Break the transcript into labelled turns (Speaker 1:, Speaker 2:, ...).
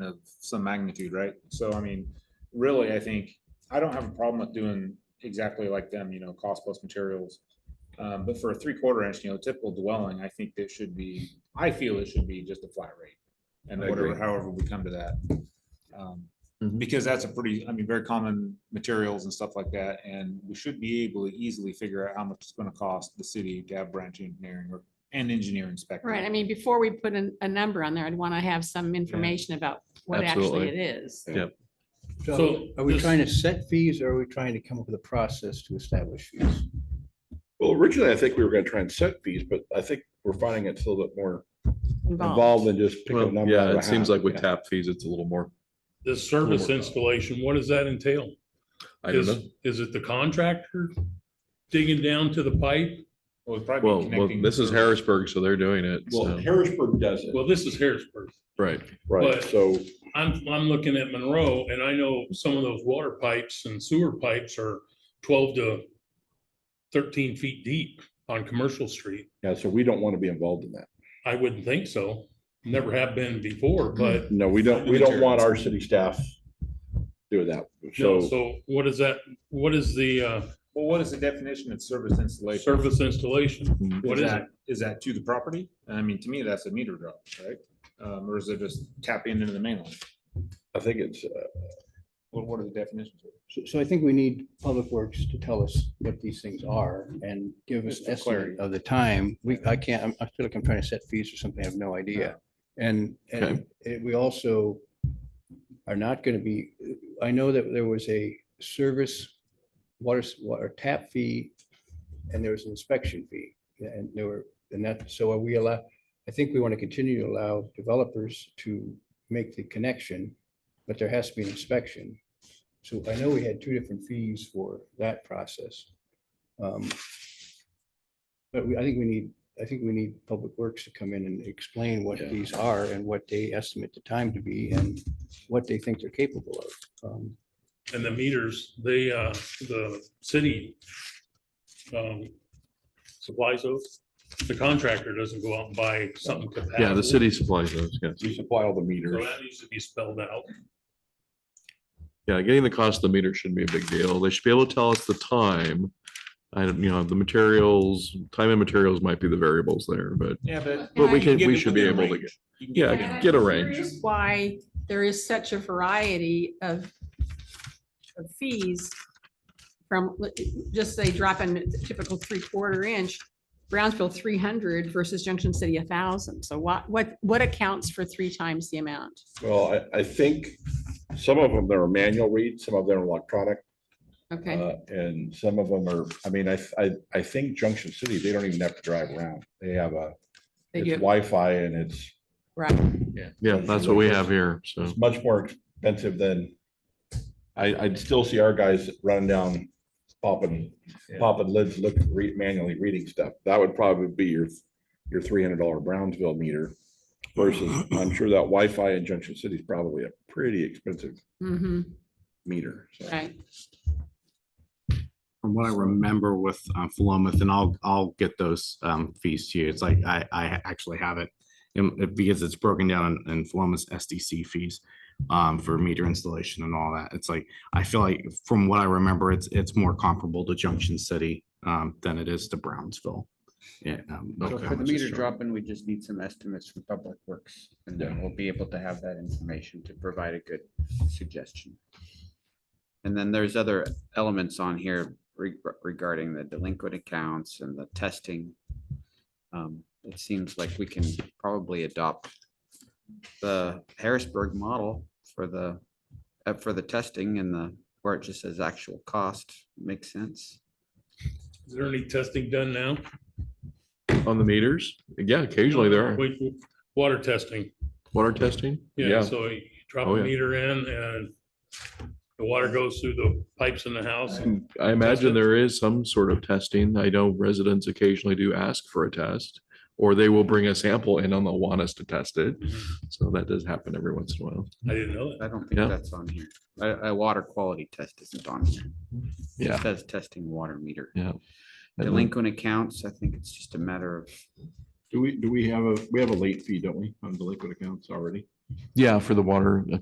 Speaker 1: of some magnitude, right? So I mean, really, I think, I don't have a problem with doing exactly like them, you know, cost plus materials. Um, but for a three quarter inch, you know, typical dwelling, I think that should be, I feel it should be just a flat rate. And
Speaker 2: I
Speaker 1: whatever,
Speaker 2: agree.
Speaker 1: however we come to that. Um,
Speaker 3: Mm-hmm.
Speaker 2: Mhm.
Speaker 1: Because that's a pretty, I mean, very common materials and stuff like that, and we should be able to easily figure out how much it's gonna cost the city to have branch engineering or, and engineering spec.
Speaker 4: Right, I mean, before we put a, a number on there, I'd want to have some information about what actually
Speaker 2: Absolutely.
Speaker 4: it is.
Speaker 2: Yeah. Yep.
Speaker 5: So
Speaker 6: So
Speaker 5: are we
Speaker 6: this-
Speaker 5: trying to set fees or are we trying to come up with a process to establish fees?
Speaker 2: Well, originally, I think we were gonna try and set fees, but I think we're finding it's a little bit more involved
Speaker 4: Involved.
Speaker 2: than just pick a
Speaker 3: Well,
Speaker 2: number. out
Speaker 3: yeah,
Speaker 2: of a
Speaker 3: it seems
Speaker 2: hat.
Speaker 3: like with
Speaker 2: Yeah.
Speaker 3: tap fees, it's a little more,
Speaker 6: The service installation, what does that entail?
Speaker 3: I don't
Speaker 6: Is-
Speaker 3: know.
Speaker 6: Is it the contractor digging down to the pipe?
Speaker 1: Well, it'd probably be
Speaker 3: Well, well,
Speaker 1: connecting
Speaker 3: this is
Speaker 1: the-
Speaker 3: Harrisburg, so they're doing it.
Speaker 2: Well,
Speaker 3: so-
Speaker 2: Harrisburg does it,
Speaker 6: Well, this is Harrisburg.
Speaker 3: Right.
Speaker 2: right,
Speaker 6: but-
Speaker 2: so,
Speaker 6: I'm, I'm looking at Monroe and I know some of those water pipes and sewer pipes are twelve to thirteen feet deep on Commercial Street.
Speaker 2: yeah, so we don't want to be involved in that.
Speaker 6: I wouldn't think so. Never have been before, but
Speaker 2: No, we don't, we don't want our city staff doing that,
Speaker 6: no,
Speaker 2: so.
Speaker 6: so what is that? What is the uh,
Speaker 1: Well, what is the definition of service installation?
Speaker 6: service installation? What is it?
Speaker 1: that, is that to the property? I mean, to me, that's a meter drop, right? Um, or is it just tapping into the main line?
Speaker 2: I think it's, uh,
Speaker 1: What, what are the definitions?
Speaker 5: So, so I think we need Public Works to tell us what these things are and give us
Speaker 1: Just for clarity.
Speaker 5: estimate of the time. We, I can't, I'm- I feel like I'm trying to set fees or something. I have no idea. And, and it- we also are not going to be, I know that there was a service water, s- water tap fee and there was an inspection fee and there were, and that, so are we allow, I think we want to continue to allow developers to make the connection, but there has to be an inspection. So I know we had two different fees for that process. Um, But we, I think we need, I think we need Public Works to come in and explain what
Speaker 2: Yeah.
Speaker 5: these are and what they estimate the time to be and what they think they're capable of. Um,
Speaker 6: And the meters, they, uh, the city um, supplies those. The contractor doesn't go out and buy something compatible.
Speaker 3: Yeah, the city supplies those, yes.
Speaker 2: we supply all the
Speaker 6: So
Speaker 2: meters.
Speaker 6: that needs to be spelled out.
Speaker 3: Yeah, getting the cost of the meter shouldn't be a big deal. They should be able to tell us the time. I don't, you know, the materials, time and materials might be the variables there, but,
Speaker 1: Yeah, but.
Speaker 3: but we
Speaker 4: I
Speaker 3: can,
Speaker 1: get
Speaker 3: we
Speaker 1: it
Speaker 3: should be
Speaker 1: within
Speaker 3: able to
Speaker 1: range.
Speaker 3: get,
Speaker 1: You can
Speaker 3: yeah,
Speaker 1: it within
Speaker 3: get a
Speaker 1: range.
Speaker 3: range.
Speaker 4: Here's Why there is such a variety of, of fees from, let- just say dropping the typical three quarter inch, Brownsville three hundred versus Junction City a thousand. So what, what, what accounts for three times the amount?
Speaker 2: Well, I, I think some of them, they're manual read, some of them are electronic,
Speaker 4: Okay,
Speaker 2: uh, and some of them are, I mean, I, I, I think Junction City, they don't even have to drive around. They have a,
Speaker 4: they
Speaker 2: it's
Speaker 4: do,
Speaker 2: Wi-Fi and it's
Speaker 4: right.
Speaker 3: yeah, that's what we have here, so.
Speaker 2: It's much more expensive than, I, I'd still see our guys running down, popping, popping lids, look, read manually reading stuff. That would probably be your, your three hundred dollar Brownsville meter versus, I'm sure that Wi-Fi in Junction City is probably a pretty expensive
Speaker 4: Mm-hmm,
Speaker 2: meter. so.
Speaker 4: right.
Speaker 7: From what I remember with um, Philomath, and I'll, I'll get those um, fees to you. It's like, I, I actually have it. in- it- because it's broken down in Philomath's SDC fees um, for meter installation and all that. It's like, I feel like from what I remember, it's, it's more comparable to Junction City um, than it is to Brownsville. Yeah. um,
Speaker 3: So
Speaker 7: how
Speaker 8: So
Speaker 3: Okay.
Speaker 8: for the
Speaker 7: much it's
Speaker 8: meter
Speaker 7: charged.
Speaker 8: drop in, we just need some estimates from Public Works and then we'll be able to have that information to provide a good suggestion. And then there's other elements on here reg- regarding the delinquent accounts and the testing. Um, It seems like we can probably adopt the Harrisburg model for the, uh, for the testing and the, where it just says actual cost makes sense.
Speaker 6: Is there any testing done now?
Speaker 3: On the meters, yeah, occasionally there are
Speaker 6: Wait, w- Water testing.
Speaker 3: water testing.
Speaker 6: Yeah, so you drop
Speaker 3: Oh,
Speaker 6: a
Speaker 3: yeah.
Speaker 6: meter in and the water goes through the pipes in the house.
Speaker 3: I imagine there is some sort of testing. I know residents occasionally do ask for a test. Or they will bring a sample in and they'll want us to test it. So that does happen every once in a while.
Speaker 6: I didn't know that.
Speaker 8: I don't think
Speaker 3: Yeah.
Speaker 8: that's on here. A, a water quality test isn't on here. It
Speaker 3: Yeah.
Speaker 8: Says testing water meter.
Speaker 3: Yeah. And then-
Speaker 8: Delinquent accounts, I think it's just a matter of,
Speaker 2: Do we, do we have a, we have a late fee, don't we, on delinquent accounts already?
Speaker 3: Yeah, for the water, uh,